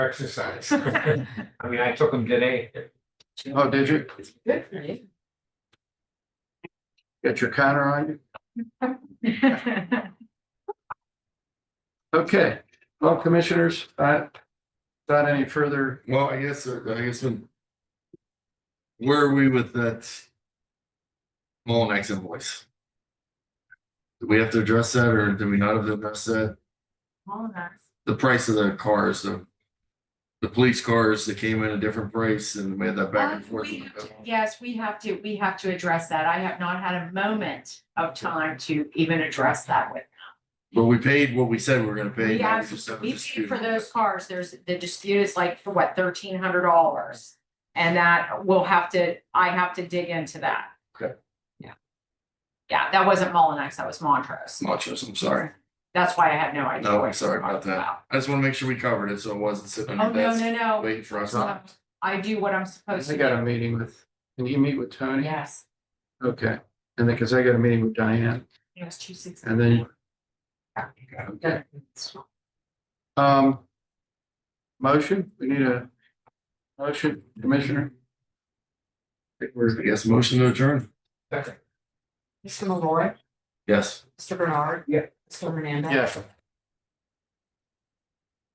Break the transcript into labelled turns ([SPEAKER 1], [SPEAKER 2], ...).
[SPEAKER 1] exercise. I mean, I took them today.
[SPEAKER 2] Oh, did you
[SPEAKER 3] Good for you.
[SPEAKER 2] get your counter on you? Okay, well, commissioners, uh, without any further,
[SPEAKER 4] Well, I guess, uh, I guess when. Where are we with that? Mullinex invoice? Do we have to address that or do we not have to address that?
[SPEAKER 3] All nice.
[SPEAKER 4] The price of the cars, the. The police cars that came in a different price and we had that back and
[SPEAKER 3] Um,
[SPEAKER 4] forth.
[SPEAKER 3] we have to- Yes, we have to, we have to address that. I have not had a moment of time to even address that with.
[SPEAKER 4] But we paid what we said we were gonna pay.
[SPEAKER 3] We
[SPEAKER 4] now
[SPEAKER 3] have,
[SPEAKER 4] we just have a
[SPEAKER 3] we paid
[SPEAKER 4] dispute.
[SPEAKER 3] for those cars. There's, the dispute is like for what, thirteen hundred dollars? And that we'll have to, I have to dig into that.
[SPEAKER 4] Okay.
[SPEAKER 3] Yeah. Yeah, that wasn't Mullinax, that was Montrose.
[SPEAKER 4] Montrose, I'm sorry.
[SPEAKER 3] That's why I had no idea.
[SPEAKER 4] No,
[SPEAKER 3] what
[SPEAKER 4] I'm sorry
[SPEAKER 3] you were
[SPEAKER 4] about that.
[SPEAKER 3] talking
[SPEAKER 4] I just wanna make sure we covered it, so it wasn't sitting
[SPEAKER 3] Oh,
[SPEAKER 4] on your
[SPEAKER 3] no,
[SPEAKER 4] desk
[SPEAKER 3] no, no.
[SPEAKER 4] waiting for us.
[SPEAKER 3] So I do what I'm supposed
[SPEAKER 2] I
[SPEAKER 3] to
[SPEAKER 2] got a
[SPEAKER 3] do.
[SPEAKER 2] meeting with, can you meet with Tony?
[SPEAKER 3] Yes,
[SPEAKER 2] Okay, and then, cause I got a meeting with Diane,
[SPEAKER 3] yes, two sixty.
[SPEAKER 2] and then,
[SPEAKER 3] Okay.
[SPEAKER 2] um. Motion, we need a motion, Commissioner. I think
[SPEAKER 4] I
[SPEAKER 2] we're-
[SPEAKER 4] guess motion to adjourn.
[SPEAKER 1] Second.
[SPEAKER 5] Mr. Malloy,
[SPEAKER 4] Yes.
[SPEAKER 5] Mr. Bernard.
[SPEAKER 1] Yeah.
[SPEAKER 5] Mr. Hernandez.
[SPEAKER 2] Yes,